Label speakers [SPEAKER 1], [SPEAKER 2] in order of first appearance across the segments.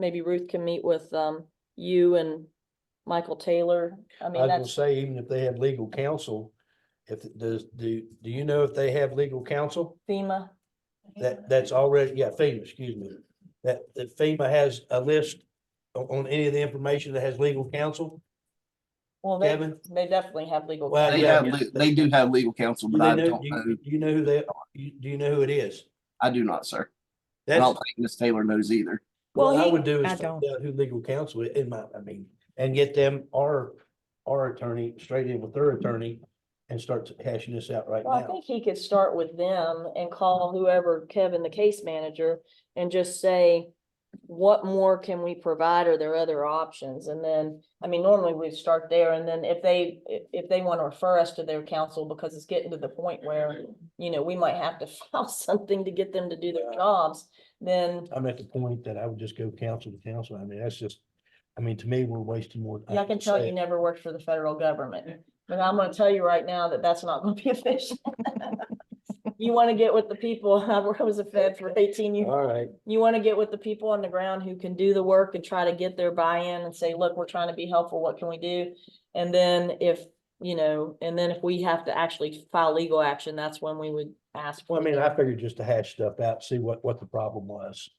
[SPEAKER 1] maybe Ruth can meet with, um, you and Michael Taylor. I
[SPEAKER 2] I
[SPEAKER 1] mean,
[SPEAKER 2] was gonna
[SPEAKER 1] that's,
[SPEAKER 2] say, even if they have legal counsel, if, it does, do, do you know if they have legal counsel?
[SPEAKER 1] FEMA.
[SPEAKER 2] That, that's already, yeah, FEMA, excuse me. That, that FEMA has a list on, on any of the information that has legal counsel?
[SPEAKER 1] Well, they,
[SPEAKER 2] Kevin?
[SPEAKER 1] they definitely have legal.
[SPEAKER 2] Well,
[SPEAKER 3] They
[SPEAKER 1] counsel.
[SPEAKER 2] yeah,
[SPEAKER 3] have,
[SPEAKER 2] yeah.
[SPEAKER 3] le- they do have legal counsel,
[SPEAKER 2] Do
[SPEAKER 3] but
[SPEAKER 2] they
[SPEAKER 3] I
[SPEAKER 2] know,
[SPEAKER 3] don't
[SPEAKER 2] do you-
[SPEAKER 3] know,
[SPEAKER 2] do you know who they, are? You- do you know who it is?
[SPEAKER 3] I do not, sir. I
[SPEAKER 2] That's
[SPEAKER 3] don't think Ms. Taylor knows either.
[SPEAKER 1] Well,
[SPEAKER 2] what I
[SPEAKER 1] he-
[SPEAKER 2] would do
[SPEAKER 4] I
[SPEAKER 2] is find
[SPEAKER 4] don't.
[SPEAKER 2] out who legal counsel i- in my, I mean, and get them, our, our attorney, straight in with their attorney and start hashing this out right
[SPEAKER 1] Well, I
[SPEAKER 2] now.
[SPEAKER 1] think he could start with them and call whoever, Kevin, the case manager, and just say, what more can we provide? Are there other options? And then, I mean, normally we start there and then if they, if, if they want to refer us to their counsel, because it's getting to the point where, you know, we might have to file something to get them to do their jobs, then,
[SPEAKER 2] I'm at the point that I would just go counsel to counsel. I mean, that's just, I mean, to me, we're wasting more.
[SPEAKER 1] yeah, I can tell you
[SPEAKER 2] Say,
[SPEAKER 1] never worked for the federal government. But I'm gonna tell you right now that that's not gonna be efficient. You want to get with the people. I was a fed for eighteen years.
[SPEAKER 2] All right,
[SPEAKER 1] you want to get with the people on the ground who can do the work and try to get their buy-in and say, look, we're trying to be helpful, what can we do? And then if, you know, and then if we have to actually file legal action, that's when we would ask.
[SPEAKER 2] well, I
[SPEAKER 1] for
[SPEAKER 2] mean,
[SPEAKER 1] them.
[SPEAKER 2] I figured just to hash stuff out, see what, what the problem was.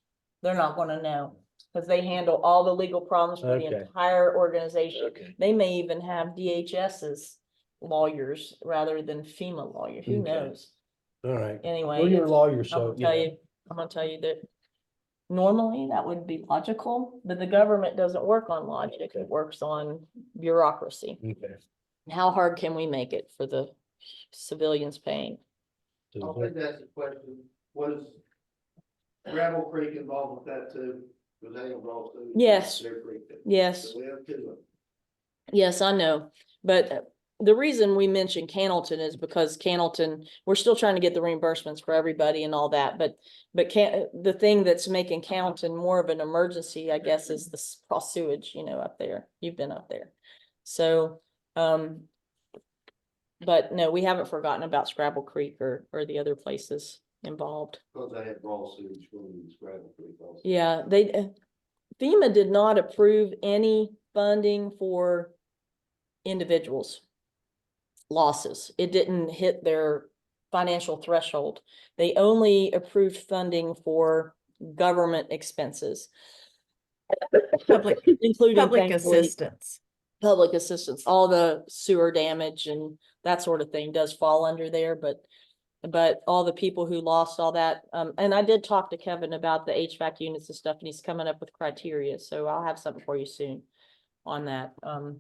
[SPEAKER 1] They're not gonna know, because they handle all the legal problems for the
[SPEAKER 2] Okay.
[SPEAKER 1] entire organization.
[SPEAKER 2] Okay.
[SPEAKER 1] They may even have DHS's lawyers rather than FEMA lawyers, who
[SPEAKER 2] Okay.
[SPEAKER 1] knows?
[SPEAKER 2] All right.
[SPEAKER 1] Anyway.
[SPEAKER 2] Well, you're a
[SPEAKER 1] it's-
[SPEAKER 2] lawyer,
[SPEAKER 1] I'm gonna
[SPEAKER 2] so. you know.
[SPEAKER 1] tell you, I'm gonna tell you that normally that would be logical, but the government doesn't work on logic, it works on bureaucracy.
[SPEAKER 2] Okay.
[SPEAKER 1] How hard can we make it for the civilians paying?
[SPEAKER 2] So
[SPEAKER 5] I
[SPEAKER 2] what-
[SPEAKER 5] think that's the question, was Gravel Creek involved with that too? Was that involved too?
[SPEAKER 1] Yes.
[SPEAKER 5] Their creek that-
[SPEAKER 1] Yes,
[SPEAKER 5] So we have two of them.
[SPEAKER 1] yes, I know, but uh, the reason we mentioned Cannleton is because Cannleton, we're still trying to get the reimbursements for everybody and all that, but but can, uh, the thing that's making Cannleton more of an emergency, I guess, is the s- raw sewage, you know, up there. You've been up there. So, um, but no, we haven't forgotten about Scrabble Creek or, or the other places involved.
[SPEAKER 5] because they had raw sewage from this Gravel Creek also.
[SPEAKER 1] Yeah, they, uh, FEMA did not approve any funding for individuals losses. It didn't hit their financial threshold. They only approved funding for government expenses,
[SPEAKER 4] Public,
[SPEAKER 1] including
[SPEAKER 4] public
[SPEAKER 1] thankfully,
[SPEAKER 4] assistance.
[SPEAKER 1] Public assistance, all the sewer damage and that sort of thing does fall under there, but but all the people who lost all that, um, and I did talk to Kevin about the HVAC units and stuff, and he's coming up with criteria, so I'll have something for you soon on that, um,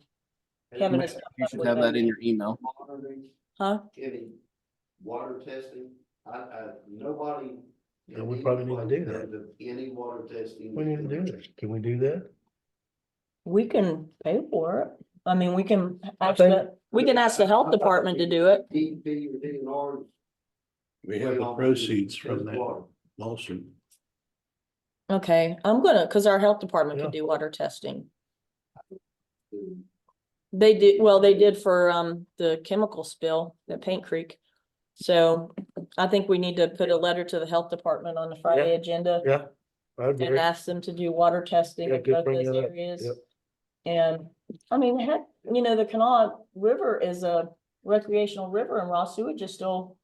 [SPEAKER 1] Kevin
[SPEAKER 3] You
[SPEAKER 1] is not
[SPEAKER 3] should
[SPEAKER 1] likely
[SPEAKER 3] have
[SPEAKER 1] to-
[SPEAKER 3] that in your email.
[SPEAKER 5] Monitoring,
[SPEAKER 1] huh?
[SPEAKER 5] any water testing, I, I, nobody.
[SPEAKER 2] Yeah, we probably need to do that.
[SPEAKER 5] Any water testing.
[SPEAKER 2] We need to do this. Can we do that?
[SPEAKER 1] We can pay for it. I mean, we can ask
[SPEAKER 2] think-
[SPEAKER 1] the, we can ask the health department to do it.
[SPEAKER 5] DEP or DNR.
[SPEAKER 6] We have the proceeds from that lawsuit.
[SPEAKER 1] Okay, I'm gonna, cause our health department
[SPEAKER 2] Yeah.
[SPEAKER 1] could do water testing. They did, well, they did for, um, the chemical spill at Paint Creek. So I think we need to put a letter to the health department on the Friday agenda
[SPEAKER 2] Yeah. I
[SPEAKER 1] and uh,
[SPEAKER 2] agree.
[SPEAKER 1] ask them to do water testing
[SPEAKER 2] Yeah,
[SPEAKER 1] in
[SPEAKER 2] good
[SPEAKER 1] both
[SPEAKER 2] bringing
[SPEAKER 1] those
[SPEAKER 2] that up.
[SPEAKER 1] areas.
[SPEAKER 2] Yep.
[SPEAKER 1] And, I mean, heck, you know, the Kanawha River is a recreational river and raw sewage is still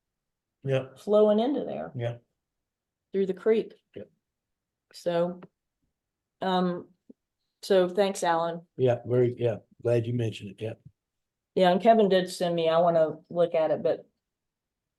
[SPEAKER 2] Yeah.
[SPEAKER 1] flowing into there.
[SPEAKER 2] Yeah.
[SPEAKER 1] Through the creek.
[SPEAKER 2] Yeah.
[SPEAKER 1] So, um, so thanks, Alan.
[SPEAKER 2] Yeah, very, yeah, glad you mentioned it, yeah.
[SPEAKER 1] Yeah, and Kevin did send me, I wanna look at it, but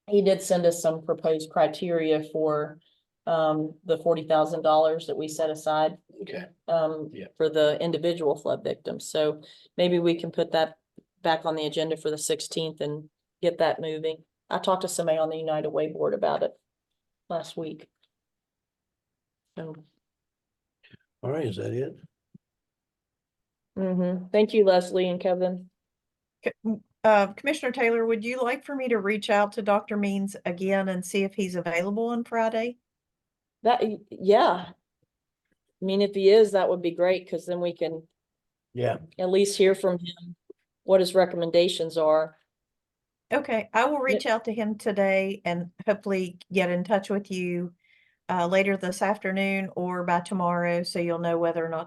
[SPEAKER 1] he did send us some proposed criteria for um the forty thousand dollars that we set aside
[SPEAKER 2] Okay.
[SPEAKER 1] um
[SPEAKER 2] Yeah.
[SPEAKER 1] for the individual flood victims, so maybe we can put that back on the agenda for the sixteenth and get that moving. I talked to somebody on the United Way Board about it last week. So,
[SPEAKER 2] All right, is that it?
[SPEAKER 1] hmm thank you, Leslie and Kevin.
[SPEAKER 4] C- m- Uh, Commissioner Taylor, would you like for me to reach out to Dr. Means again and see if he's available on Friday?
[SPEAKER 1] That, yeah. I mean, if he is, that would be great, cause then we can
[SPEAKER 2] Yeah,
[SPEAKER 1] at least hear from him what his recommendations are.
[SPEAKER 4] Okay, I will reach out to him today and hopefully get in touch with you uh, later this afternoon or by tomorrow, so you'll know whether or not to